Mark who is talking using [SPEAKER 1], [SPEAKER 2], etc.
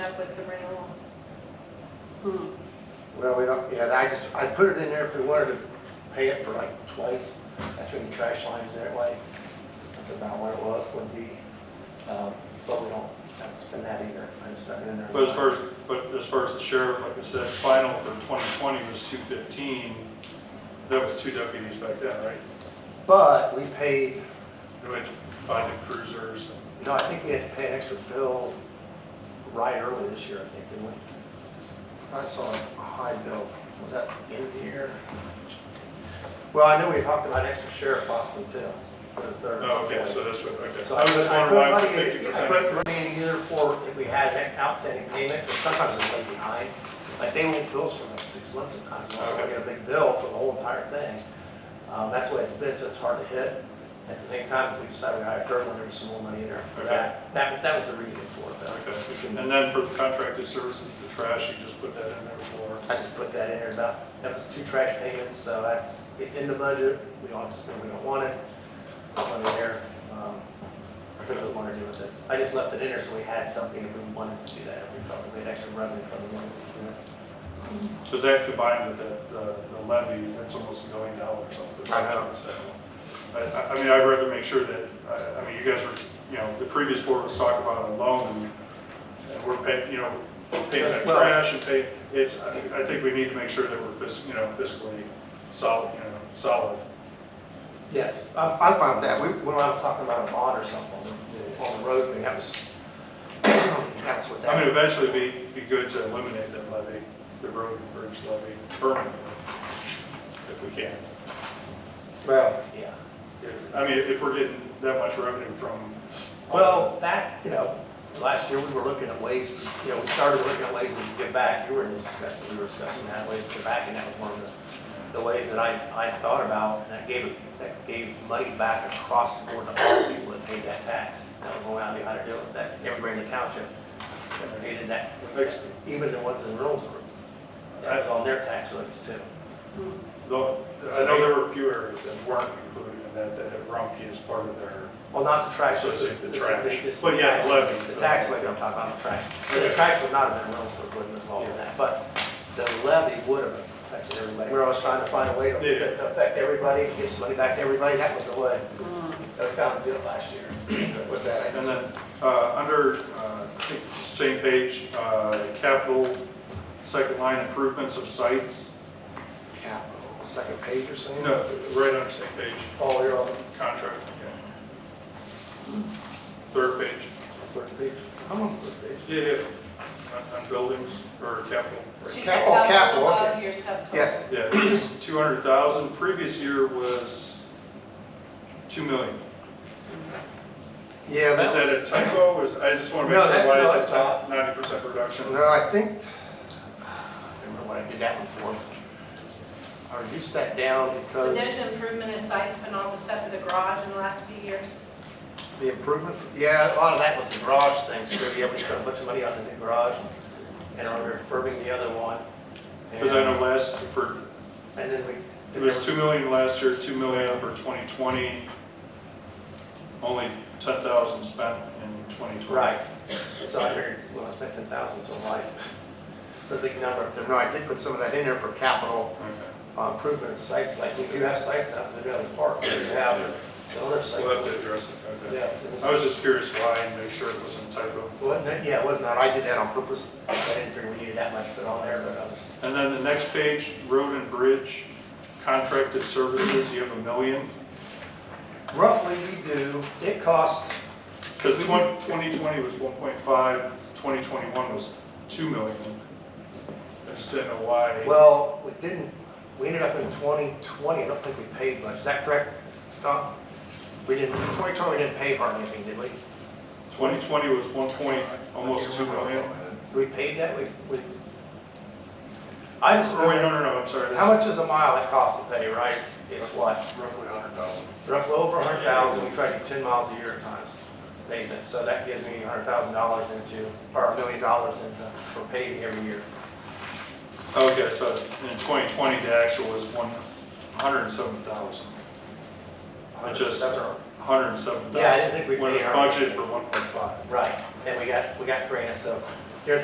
[SPEAKER 1] with the rental.
[SPEAKER 2] Well, we don't, yeah, I just, I put it in there if we wanted to pay it for like twice. That's when the trash line's that way. That's about where it was, would be. Um, But we don't have to spend that either. I just stuck it in there.
[SPEAKER 3] But as far as, but as far as the sheriff, like I said, final for 2020 was 215. That was two deputies back then, right?
[SPEAKER 2] But we paid,
[SPEAKER 3] Who had buy the cruisers.
[SPEAKER 2] no, I think we had to pay an extra bill right early this year, I think, didn't we? I saw a high bill. Was that in here? Well, I know we talked about extra sheriff possibly too, for the third.
[SPEAKER 3] Oh, okay, so that's what, okay.
[SPEAKER 2] So
[SPEAKER 3] I was just wondering why it was
[SPEAKER 2] put money in- I
[SPEAKER 3] 50%.
[SPEAKER 2] put money in either for if we had an outstanding payment, but sometimes it's way behind. Like they won't bill us for like six months sometimes, unless I
[SPEAKER 3] Okay.
[SPEAKER 2] get a big bill for the whole entire thing. Um, that's the way it's been, so it's hard to hit. At the same time, if we decide we hire a third one, there's some more money in there for
[SPEAKER 3] Okay.
[SPEAKER 2] that. That, that was the reason for it though. We
[SPEAKER 3] Okay,
[SPEAKER 2] can-
[SPEAKER 3] and then for the contracted services, the trash, you just put that in there for,
[SPEAKER 2] I just put that in there about, that was two trash payments, so that's, it's in the budget. We don't have to spend, we don't want it. Put it there. Um, That's what we wanted to do with it. I just left it in there so we had something if we wanted to do that, if we felt that we had extra revenue from the money.
[SPEAKER 3] because that combined with the, the the levy, that's almost a million dollars off the
[SPEAKER 2] I know.
[SPEAKER 3] top, so. I, I- I mean, I'd rather make sure that, I, I mean, you guys were, you know, the previous board was talking about a loan, and- and we're paying, you know, we're paying that
[SPEAKER 2] Well-
[SPEAKER 3] trash and pay, it's, I I think we need to make sure that we're fiscally, you know, fiscally solid, you know, solid.
[SPEAKER 2] Yes, I'm, I'm fine with that. We, when I was talking about a bond or something on the- on the road thing, that was, that's what
[SPEAKER 3] I
[SPEAKER 2] that.
[SPEAKER 3] mean, eventually it'd be, be good to eliminate that levy, the road and bridge levy permanently, if we can.
[SPEAKER 2] Well. Yeah.
[SPEAKER 3] If- I mean, if we're getting that much revenue from.
[SPEAKER 2] Well, that, you know, last year we were looking at ways, you know, we started looking at ways we could give back. You were in this discussion, we were discussing that ways to give back, and that was one of the, the ways that I, I thought about, and that gave, that gave money back across the board to all the people that paid that tax. That was the way I knew how to do it, was that everybody in the township that paid that, even the ones in Reynoldsburg. That was on their tax rates too.
[SPEAKER 3] Though, I know there were a few areas that weren't included in that, that had Rumpke as part of their,
[SPEAKER 2] Well, not the trash,
[SPEAKER 3] So
[SPEAKER 2] this
[SPEAKER 3] it's
[SPEAKER 2] is,
[SPEAKER 3] the
[SPEAKER 2] this is
[SPEAKER 3] trash.
[SPEAKER 2] the, this is
[SPEAKER 3] But
[SPEAKER 2] the
[SPEAKER 3] yeah,
[SPEAKER 2] tax-
[SPEAKER 3] levy.
[SPEAKER 2] The tax levy I'm talking about, the trash. The
[SPEAKER 3] Okay.
[SPEAKER 2] trash would not have been Reynoldsburg, wouldn't have involved in that, but the levy would have affected everybody. We're always trying to find a way to
[SPEAKER 3] Yeah.
[SPEAKER 2] to affect everybody, give some money back to everybody, that was the way that we found to do it last year with that.
[SPEAKER 3] and then, uh, under, uh, I think, same page, uh, capital, second line improvements of sites.
[SPEAKER 2] Capital, second page or something?
[SPEAKER 3] No, right under same page,
[SPEAKER 2] Oh, you're on
[SPEAKER 3] contract, okay. Third page.
[SPEAKER 2] the third page. I'm on the third page.
[SPEAKER 3] Yeah, yeah, on- on buildings or capital.
[SPEAKER 1] She
[SPEAKER 2] Cap-
[SPEAKER 1] said
[SPEAKER 2] oh,
[SPEAKER 1] that
[SPEAKER 2] capital,
[SPEAKER 1] was above
[SPEAKER 2] okay.
[SPEAKER 1] your subtotal.
[SPEAKER 2] Yes,
[SPEAKER 3] Yeah, two hundred thousand, previous year was two million.
[SPEAKER 2] yeah,
[SPEAKER 3] Is
[SPEAKER 2] that,
[SPEAKER 3] that a typo, is, I just wanna make
[SPEAKER 2] No,
[SPEAKER 3] sure
[SPEAKER 2] that's- no,
[SPEAKER 3] why is
[SPEAKER 2] it's
[SPEAKER 3] it
[SPEAKER 2] not.
[SPEAKER 3] ninety percent reduction?
[SPEAKER 2] no, I think, I remember when I did that before. I reduced that down
[SPEAKER 1] But
[SPEAKER 2] because.
[SPEAKER 1] there's improvement in sites, but all the stuff in the garage in the last few years.
[SPEAKER 2] The improvements? Yeah, a lot of that was the garage thing, so yeah, we spent a bunch of money on the new garage and on refurbing the other one.
[SPEAKER 3] Cause I know last, for,
[SPEAKER 2] And then we.
[SPEAKER 3] it was two million last year, two million for twenty twenty. Only ten thousand spent in twenty twenty.
[SPEAKER 2] Right, so I figured, well, I spent ten thousand, so why? The big number. No, I did put some of that in there for capital
[SPEAKER 3] Okay,
[SPEAKER 2] uh, improvement sites, like we do have sites now, because we have the park, we have the other sites.
[SPEAKER 3] we'll have to address it, okay.
[SPEAKER 2] Yeah, so this-
[SPEAKER 3] I was just curious why and make sure it wasn't a typo.
[SPEAKER 2] Wasn't it? Yeah, it was not, I did that on purpose, I didn't figure we needed that much put on there, but I was,
[SPEAKER 3] And then the next page, road and bridge, contracted services, you have a million.
[SPEAKER 2] roughly we do, it costs
[SPEAKER 3] Because 2020 was 1.5, 2021 was 2 million. I just didn't know why.
[SPEAKER 2] Well, we didn't, we ended up in 2020, I don't think we paid much, is that correct, Don? We didn't, 2020, we didn't pay for anything, did we?
[SPEAKER 3] 2020 was 1 point, almost 2 million.
[SPEAKER 2] We paid that, we, we... I just,
[SPEAKER 3] Or Oh, wait, no, no, no, I'm sorry.
[SPEAKER 2] how much is a mile it cost to pay, right? It's, it's what,
[SPEAKER 3] Roughly 100,000.
[SPEAKER 2] roughly over 100,000, we try to do 10 miles a year at times, pavement, so that gives me $100,000 into, or a million dollars into, for paving every year.
[SPEAKER 3] Okay, so in 2020, the actual was 107,000. Which is-
[SPEAKER 2] That's our-
[SPEAKER 3] 107,000.
[SPEAKER 2] Yeah, I didn't think we
[SPEAKER 3] When it
[SPEAKER 2] paid
[SPEAKER 3] was
[SPEAKER 2] our-
[SPEAKER 3] budgeted for 1.5.
[SPEAKER 2] Right, and we got, we got grants, so